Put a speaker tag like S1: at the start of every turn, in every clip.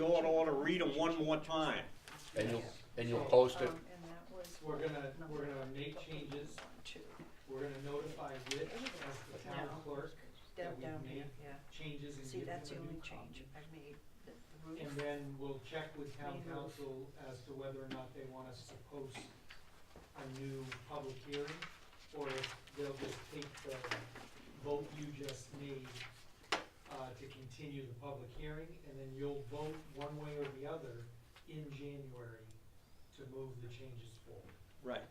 S1: court order, read them one more time.
S2: And you'll, and you'll post it,
S3: Um, and that was
S4: We're gonna,
S3: number
S4: we're gonna make changes,
S3: one, two.
S4: we're gonna notify Rich as the town
S3: No.
S4: clerk that
S3: Down,
S4: we've
S3: down,
S4: made
S3: yeah.
S4: changes and
S3: See,
S4: give them
S3: that's
S4: a
S3: the only
S4: new
S3: change
S4: copy.
S3: I made, the the
S4: And
S3: roof.
S4: then we'll check with town
S3: Remove.
S4: council as to whether or not they want us to post a new public hearing, or if they'll just take the vote you just made, uh, to continue the public hearing, and then you'll vote one way or the other in January to move the changes forward.
S1: Right.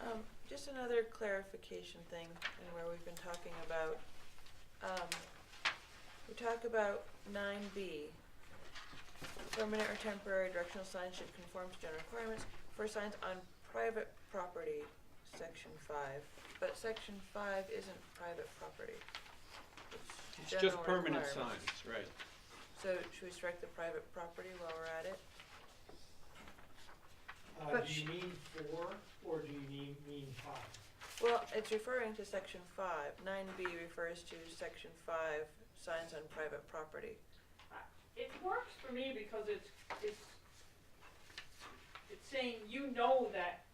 S5: Um, just another clarification thing, and where we've been talking about, um, we talk about nine B. Permanent or temporary directional signs should conform to general requirements for signs on private property, section five, but section five isn't private property.
S1: It's just
S5: general
S1: permanent signs,
S5: requirements.
S1: right.
S5: So should we strike the private property while we're at it?
S4: Uh,
S3: But
S4: do you
S3: sh-
S4: mean four, or do you mean, mean five?
S5: Well, it's referring to section five. Nine B refers to section five, signs on private property.
S6: It works for me because it's, it's, it's saying you know that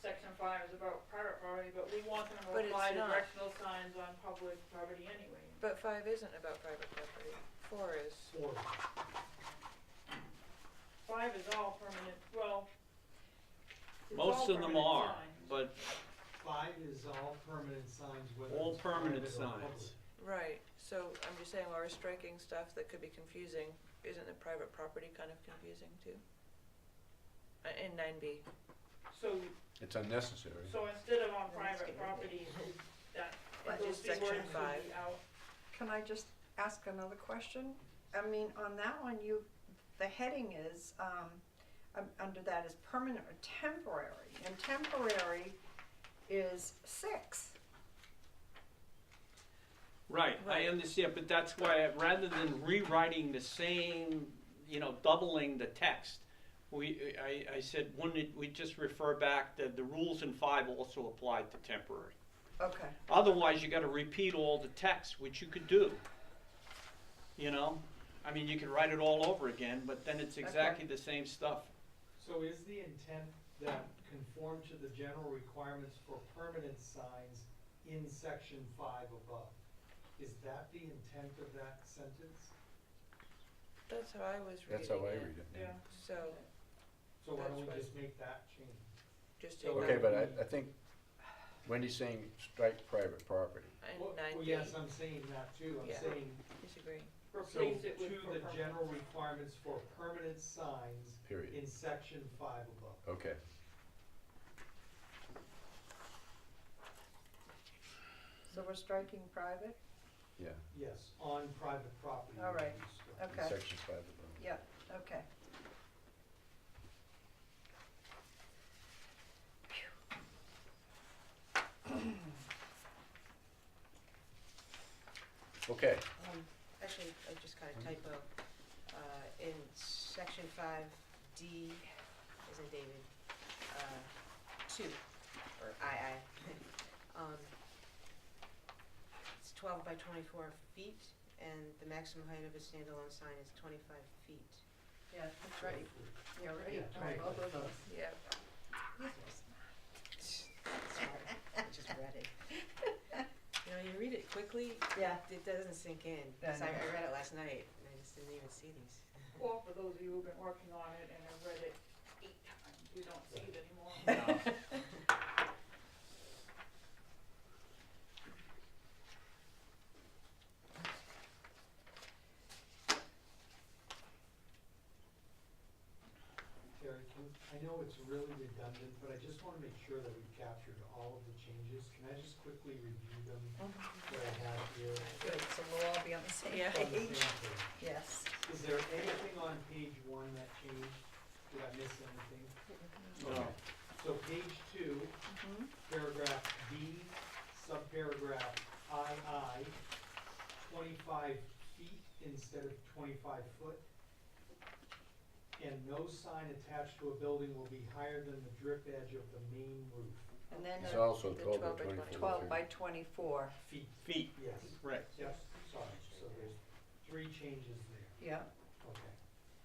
S6: section five is about private property, but we want them
S5: But
S6: to
S5: it's
S6: apply to
S5: not.
S6: directional signs on public property anyway.
S5: But five isn't about private property. Four is.
S4: Four.
S6: Five is all permanent, well, it's all
S1: Most of them
S6: permanent
S1: are,
S6: signs.
S1: but
S4: Five is all permanent signs, whether
S1: All
S4: it's
S1: permanent
S4: private or
S1: signs.
S4: public.
S5: Right, so I'm just saying while we're striking stuff that could be confusing, isn't the private property kind of confusing too? Uh, In nine B.
S6: So,
S2: it's unnecessary.
S6: so instead of on
S3: Let's
S6: private
S3: get rid of
S6: property, that,
S3: But
S6: those
S5: just
S6: three
S5: section
S6: words would
S5: five.
S6: be out.
S3: Can I just ask another question? I mean, on that one, you, the heading is, um, um, under that is permanent or temporary, and temporary is six.
S1: Right, I
S5: Right.
S1: understand, but that's why, rather than rewriting the same, you know, doubling the text, we, I, I said, wouldn't it, we just refer back that the rules in five also apply to temporary.
S3: Okay,
S1: Otherwise, you gotta repeat all the text, which you could do. You know, I mean, you could write it all over again, but then it's exactly the same stuff.
S4: So is the intent that conform to the general requirements for permanent signs in section five above? Is that the intent of that sentence?
S5: That's how I was reading it.
S2: That's how I read it.
S6: Yeah.
S1: Mm.
S5: So,
S4: So why don't we
S5: That's right.
S4: just make that change?
S5: just take
S4: So
S2: Okay,
S5: that
S2: but I, I think Wendy's saying strike private property.
S4: Well,
S5: and nine
S4: Well,
S5: B,
S4: yes, I'm saying that too, I'm
S5: Yeah.
S4: saying,
S5: disagree.
S4: so
S6: Replace it with
S4: to
S6: for
S4: the
S6: permanent.
S4: general requirements for permanent signs
S2: Period.
S4: in section five above.
S2: Okay.
S3: so we're striking private?
S2: Yeah.
S4: Yes, on private property.
S3: All right.
S4: we use that.
S2: in
S3: Okay,
S2: Section five above.
S3: yeah, okay.
S2: Okay,
S7: Um, actually, I just got a typo, uh, in section five D, as in David, uh, two, or II. Um, it's twelve by twenty-four feet, and the maximum height of a standalone sign is twenty-five feet.
S3: Yeah, that's right,
S4: Yeah,
S3: yeah, right,
S4: right.
S3: both of those.
S5: Yeah,
S7: Sorry, I just read it. You know, you read it quickly,
S3: Yeah.
S7: it doesn't sink in, 'cause I, I
S3: Yeah, I know.
S7: read it last night, and I just didn't even see these.
S6: Well, for those of you who've been working on it and have read it eight times, you don't see it anymore.
S4: Terry, can, I know it's really redundant, but I just wanna make sure that we've captured all of the changes. Can I just quickly review them that I have here?
S3: Good, so we'll all be on the same
S5: Yeah.
S4: on the
S3: page,
S4: same page?
S3: yes.
S4: Is there anything on page one that changed? Did I miss anything?
S1: No.
S4: So page two,
S3: Mhm.
S4: paragraph B, subparagraph II, twenty-five feet instead of twenty-five foot. And no sign attached to a building will be higher than the drip edge of the main roof.
S3: And then
S2: it's
S3: the
S2: also
S5: the
S2: twelve by
S5: 12 by
S2: twenty-four.
S3: 12 by 24.
S4: Feet,
S1: Feet,
S4: yes,
S1: right.
S4: yes, sorry, so there's three changes there.
S3: Yeah.